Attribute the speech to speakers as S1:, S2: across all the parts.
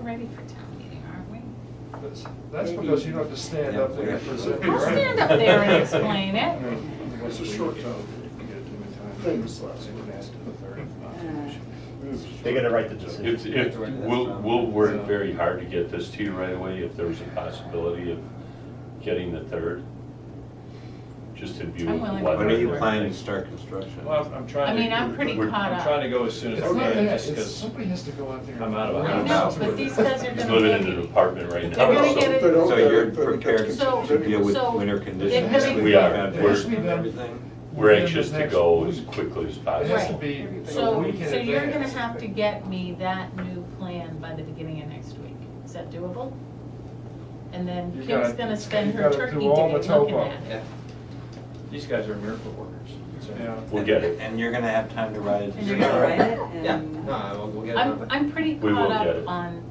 S1: ready for town meeting, aren't we?
S2: That's, that's because you don't have to stand up there and present.
S1: I'll stand up there and explain it.
S2: It's a short time.
S3: Things.
S4: They gotta write the
S5: If,
S4: decision.
S5: if, we'll, we'll work very hard to get this to you right away, if there's a possibility of getting the third. Just to view.
S1: I'm willing.
S5: what
S6: When are you
S5: everything-
S6: planning to start construction?
S7: Well, I'm- I'm trying to.
S1: I mean, I'm pretty
S5: We're-
S1: caught
S7: I'm
S1: up.
S7: trying to go as soon as I
S2: It's not
S7: can,
S2: that,
S7: just
S2: it's,
S7: 'cause
S2: somebody has to go out there.
S7: I'm out of the
S1: I
S7: house.
S1: know, but these guys are
S5: He's
S1: gonna
S5: living in
S1: get
S5: an
S1: me.
S5: apartment right
S1: They're
S5: now,
S1: gonna
S5: so.
S1: get it,
S6: So you're
S3: If they don't
S6: prepared
S1: So-
S6: to deal with
S1: so
S6: winter
S1: if
S6: conditions?
S1: they-
S5: We are.
S2: It has to be done-
S6: Everything?
S5: We're anxious
S2: within
S5: to
S2: the
S5: go
S2: next
S5: as
S2: week.
S5: quickly as
S2: It has to
S5: possible.
S2: be a
S1: so,
S2: week in
S1: so you're gonna
S2: advance.
S1: have to get me that new plan by the beginning of next week. Is that doable? And then
S2: You
S1: Kim's
S2: gotta-
S1: gonna spend
S2: you
S1: her
S2: gotta
S1: turkey
S2: do
S1: day
S2: all the
S1: looking
S2: topo.
S1: at it.
S7: these guys are miracle workers. So-
S2: Yeah.
S5: We'll get it.
S6: And you're gonna have time to write it?
S1: And
S8: You're
S1: Yeah.
S8: gonna write it
S6: Yeah.
S8: and.
S3: No, we'll get it
S1: I'm,
S3: done.
S1: I'm pretty
S5: We will
S1: caught
S5: get
S1: up
S5: it.
S1: on,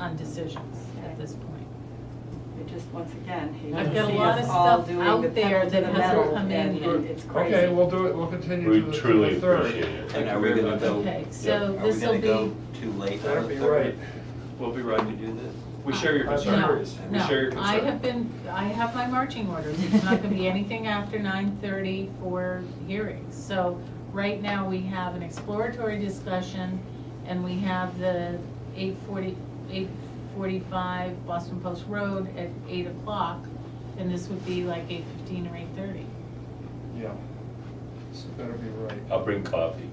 S1: on decisions at this point.
S8: It just, once again, he
S1: I've
S8: would
S1: got a
S8: see
S1: lot
S8: us
S1: of
S8: all
S1: stuff
S8: doing
S1: out
S8: the
S1: there
S8: pedal to
S1: that
S8: the
S1: hasn't
S8: metal,
S1: come in
S8: and
S1: yet.
S8: it- it's crazy.
S2: Okay, we'll do it, we'll continue
S5: We
S2: to the- to
S5: truly
S2: the third.
S5: appreciate it.
S6: And are we gonna go,
S1: Okay, so
S6: are we
S1: this'll
S6: gonna
S1: be,
S6: go too late
S2: That'd
S6: on
S2: be
S6: the
S2: right.
S6: third?
S7: We'll be right
S6: Can we
S7: to do.
S6: do this?
S7: We share your
S2: I'm
S7: concern.
S2: curious.
S7: We share your
S1: no, no, I
S7: concern.
S1: have been, I have my marching orders, it's not gonna be anything after nine thirty for hearings. So, right now, we have an exploratory discussion, and we have the eight forty, eight forty-five Boston Post Road at eight o'clock, and this would be like eight fifteen or eight thirty.
S2: Yeah. So better be right.
S5: I'll bring coffee.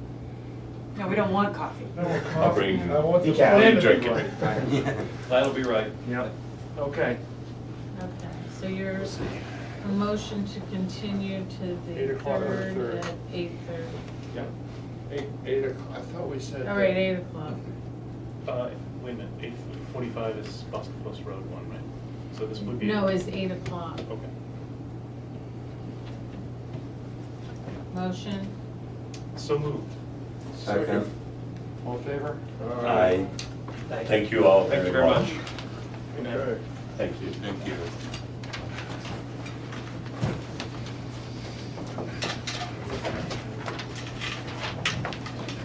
S8: No, we don't want coffee.
S2: No, we're
S5: I'll bring-
S2: confident. I want the
S4: You can't
S2: plan to
S5: drink
S2: be
S5: it.
S2: right.
S6: Yeah.
S7: That'll be right.
S2: Yeah, okay.
S1: Okay, so your motion to continue to
S2: Eight
S1: the
S2: o'clock on the
S1: third
S2: third.
S1: at eight thirty.
S2: Yeah. Eight, eight o'clock, I thought we said.
S1: All right, eight o'clock.
S9: Uh, wait a minute, eight forty-five is Boston Post Road one, right? So this would be.
S1: No, it's eight o'clock.
S9: Okay.
S1: Motion,
S9: So moved.
S6: Second.
S2: All in favor?
S6: Aye.
S5: Thank you all
S7: Thank
S5: very
S7: you very
S5: much.
S7: much.
S2: Okay.
S5: Thank you.
S6: Thank you.